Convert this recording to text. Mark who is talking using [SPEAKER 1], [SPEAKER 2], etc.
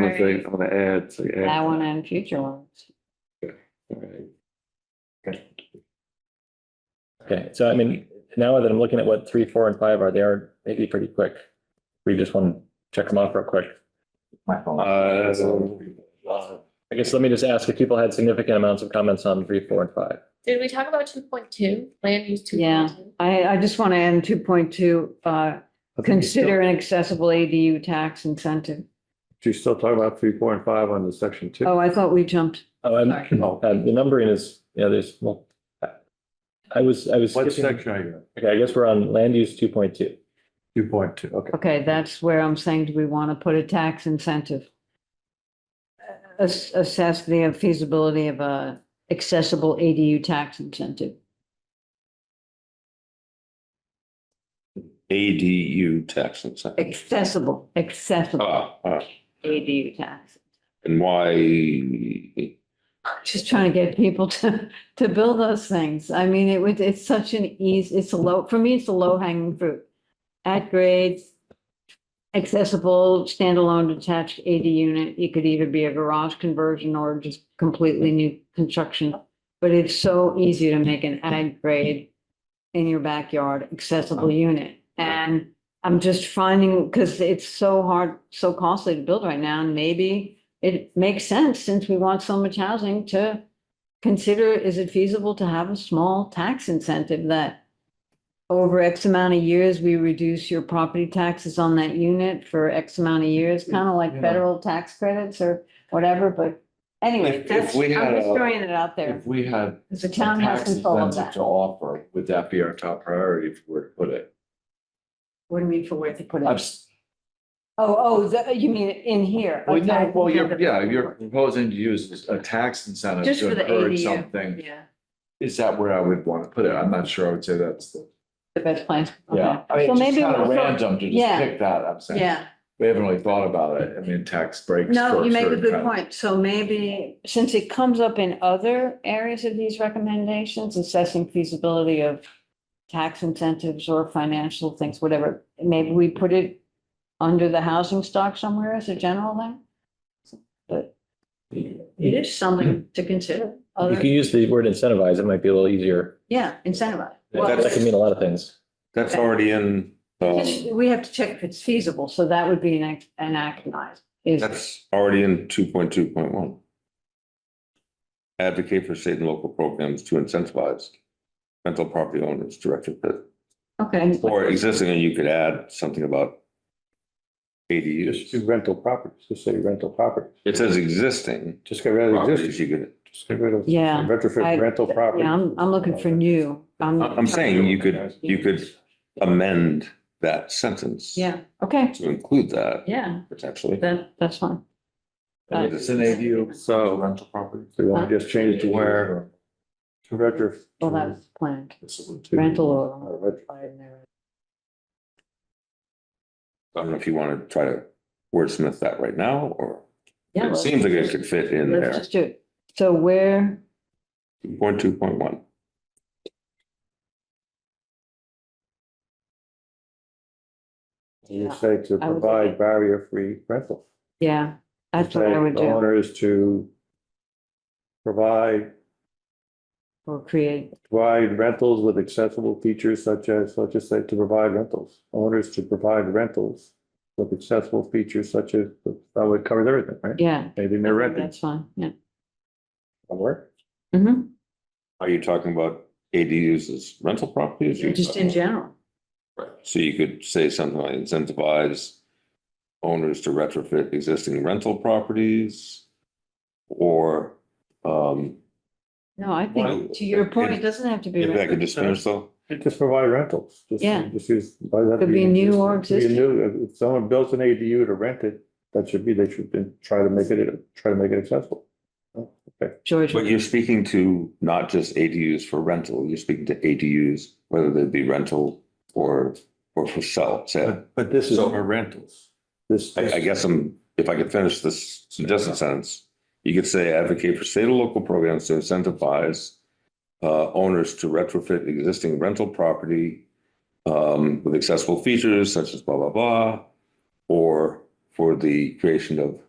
[SPEAKER 1] gonna say, I'm gonna add, say add.
[SPEAKER 2] That one and future ones.
[SPEAKER 1] All right.
[SPEAKER 3] Okay, so I mean, now that I'm looking at what three, four, and five are, they are maybe pretty quick. We just want to check them off real quick.
[SPEAKER 4] My phone.
[SPEAKER 1] Uh,
[SPEAKER 3] I guess let me just ask if people had significant amounts of comments on three, four, and five.
[SPEAKER 5] Did we talk about two point two, land use two
[SPEAKER 2] Yeah.
[SPEAKER 5] point two?
[SPEAKER 2] I, I just want to end two point two, uh, consider an accessible ADU tax incentive.
[SPEAKER 1] Do you still talk about three, four, and five on the section two?
[SPEAKER 2] Oh, I thought we jumped.
[SPEAKER 3] Oh, and
[SPEAKER 2] Sorry.
[SPEAKER 1] Oh,
[SPEAKER 3] uh, the numbering is, you know, there's, well, I- I was, I was.
[SPEAKER 1] What
[SPEAKER 3] skipping-
[SPEAKER 1] section are you in?
[SPEAKER 3] Okay, I guess we're on land use two point two.
[SPEAKER 1] Two point two, okay.
[SPEAKER 2] Okay, that's where I'm saying, do we want to put a tax incentive? Ass- Assess the feasibility of a accessible ADU tax incentive.
[SPEAKER 6] ADU tax incentive.
[SPEAKER 2] Accessible,
[SPEAKER 1] Uh.
[SPEAKER 2] accessible
[SPEAKER 6] Ah, ah,
[SPEAKER 2] ADU tax.
[SPEAKER 6] And why,
[SPEAKER 2] Just trying to get people to, to build those things. I mean, it would, it's such an easy, it's a low, for me, it's a low hanging fruit. At grades, accessible standalone detached AD unit. It could either be a garage conversion or just completely new construction. But it's so easy to make an ag grade in your backyard accessible
[SPEAKER 1] Oh.
[SPEAKER 2] unit. And I'm just finding, because it's so hard, so costly to build right now, and maybe it makes sense since we want so much housing to consider, is it feasible to have a small tax incentive that over X amount of years, we reduce your property taxes on that unit for X amount of years, kind of like
[SPEAKER 1] Mm-hmm. Yeah.
[SPEAKER 2] federal tax credits or whatever, but anyway,
[SPEAKER 1] If- if
[SPEAKER 2] that's, I'm
[SPEAKER 1] we had
[SPEAKER 2] just
[SPEAKER 1] a-
[SPEAKER 2] throwing it out there.
[SPEAKER 1] If we had
[SPEAKER 2] Because the
[SPEAKER 1] some
[SPEAKER 2] town has
[SPEAKER 1] tax
[SPEAKER 2] control of
[SPEAKER 1] incentive
[SPEAKER 2] that.
[SPEAKER 1] to offer, would that be our top priority if we were to put it?
[SPEAKER 2] What do you mean for where to put it?
[SPEAKER 1] I'm
[SPEAKER 2] Oh,
[SPEAKER 1] s-
[SPEAKER 2] oh, the- you mean in here?
[SPEAKER 1] Well, no,
[SPEAKER 2] okay.
[SPEAKER 1] well, you're, yeah, you're proposing to use a tax incentive
[SPEAKER 2] Just
[SPEAKER 1] to
[SPEAKER 2] for the
[SPEAKER 1] encourage
[SPEAKER 2] ADU.
[SPEAKER 1] something.
[SPEAKER 2] Yeah,
[SPEAKER 1] Is that where I would want to put it? I'm not sure. I would say that's the,
[SPEAKER 2] the best place. Okay.
[SPEAKER 1] yeah. I mean,
[SPEAKER 2] So
[SPEAKER 1] it's
[SPEAKER 2] maybe
[SPEAKER 1] kind of
[SPEAKER 2] we'll-
[SPEAKER 1] random to just
[SPEAKER 2] Yeah.
[SPEAKER 1] pick that, I'm saying.
[SPEAKER 2] Yeah,
[SPEAKER 1] We haven't really thought about it. I mean, tax breaks.
[SPEAKER 2] no, you make a
[SPEAKER 1] structure,
[SPEAKER 2] good
[SPEAKER 1] kind of-
[SPEAKER 2] point. So maybe, since it comes up in other areas of these recommendations, assessing feasibility of tax incentives or financial things, whatever, maybe we put it under the housing stock somewhere as a general thing? But it is something to consider,
[SPEAKER 3] You
[SPEAKER 2] other,
[SPEAKER 3] can use the word incentivize, it might be a little easier.
[SPEAKER 2] yeah, incentivize.
[SPEAKER 6] Well,
[SPEAKER 3] That can mean a lot of things.
[SPEAKER 6] that's already in, um,
[SPEAKER 2] Just- We have to check if it's feasible, so that would be an, act- an act nice, is,
[SPEAKER 6] that's already in two point two point one. Advocate for state and local programs to incentivize rental property owners directed to,
[SPEAKER 2] okay.
[SPEAKER 6] or existing, and you could add something about
[SPEAKER 7] Just
[SPEAKER 6] ADUs.
[SPEAKER 7] do rental properties, just say rental properties,
[SPEAKER 6] It says existing
[SPEAKER 7] just get rid of
[SPEAKER 6] properties,
[SPEAKER 7] existing,
[SPEAKER 6] you could,
[SPEAKER 7] just get rid of.
[SPEAKER 2] Yeah, I-
[SPEAKER 7] Retrofit rental property.
[SPEAKER 2] Yeah, I'm, I'm looking for new.
[SPEAKER 6] I'm saying you could, you could amend that sentence.
[SPEAKER 2] Yeah, okay,
[SPEAKER 6] To include that
[SPEAKER 2] yeah,
[SPEAKER 6] potentially.
[SPEAKER 2] that, that's fine. Uh,
[SPEAKER 1] And It's an ADU. So. Rental property.
[SPEAKER 7] So you want to just change it to where to retrofit.
[SPEAKER 2] Well, that's planned,
[SPEAKER 7] to-
[SPEAKER 2] rental
[SPEAKER 7] uh,
[SPEAKER 2] or.
[SPEAKER 7] retro-
[SPEAKER 6] I don't know if you want to try to wordsmith that right now, or
[SPEAKER 2] Yeah,
[SPEAKER 6] it seems like it could fit in
[SPEAKER 2] Let's
[SPEAKER 6] there.
[SPEAKER 2] just do it. So where,
[SPEAKER 6] Point two point one.
[SPEAKER 7] You say to
[SPEAKER 2] I would like
[SPEAKER 7] provide
[SPEAKER 2] it.
[SPEAKER 7] barrier-free rental.
[SPEAKER 2] yeah, that's what
[SPEAKER 7] Say
[SPEAKER 2] I would
[SPEAKER 7] The
[SPEAKER 2] do,
[SPEAKER 7] owner is to provide,
[SPEAKER 2] or create,
[SPEAKER 7] provide rentals with accessible features such as, let's just say to provide rentals. Owners to provide rentals with accessible features such as, that would cover everything, right?
[SPEAKER 2] yeah.
[SPEAKER 7] Anything they're renting.
[SPEAKER 2] That's fine, yeah.
[SPEAKER 7] That'll work.
[SPEAKER 2] hmm
[SPEAKER 6] Are you talking about ADUs as rental properties? You're
[SPEAKER 2] just in
[SPEAKER 6] talking-
[SPEAKER 2] general.
[SPEAKER 6] So you could say something like incentivize owners to retrofit existing rental properties or, um,
[SPEAKER 2] No, I
[SPEAKER 6] Well,
[SPEAKER 2] think, to your point,
[SPEAKER 6] it-
[SPEAKER 2] it doesn't have to be.
[SPEAKER 6] if I
[SPEAKER 2] rental.
[SPEAKER 6] could just finish though,
[SPEAKER 7] Just provide rentals. Just-
[SPEAKER 2] Yeah.
[SPEAKER 7] Just use. why does that
[SPEAKER 2] Could be new or
[SPEAKER 7] Could be
[SPEAKER 2] existing.
[SPEAKER 7] new. If someone builds an ADU to rent it, that should be, they should then try to make it, try to make it accessible.
[SPEAKER 2] George,
[SPEAKER 6] but you're speaking to not just ADUs for rental, you're speaking to ADUs, whether they be rental or, or for sale, sale.
[SPEAKER 7] But this
[SPEAKER 6] is-
[SPEAKER 7] For rentals. This.
[SPEAKER 6] I, I guess I'm, if I could finish this suggestion sentence, you could say advocate for state and local programs to incentivize uh, owners to retrofit existing rental property um, with accessible features such as blah, blah, blah, or for the creation of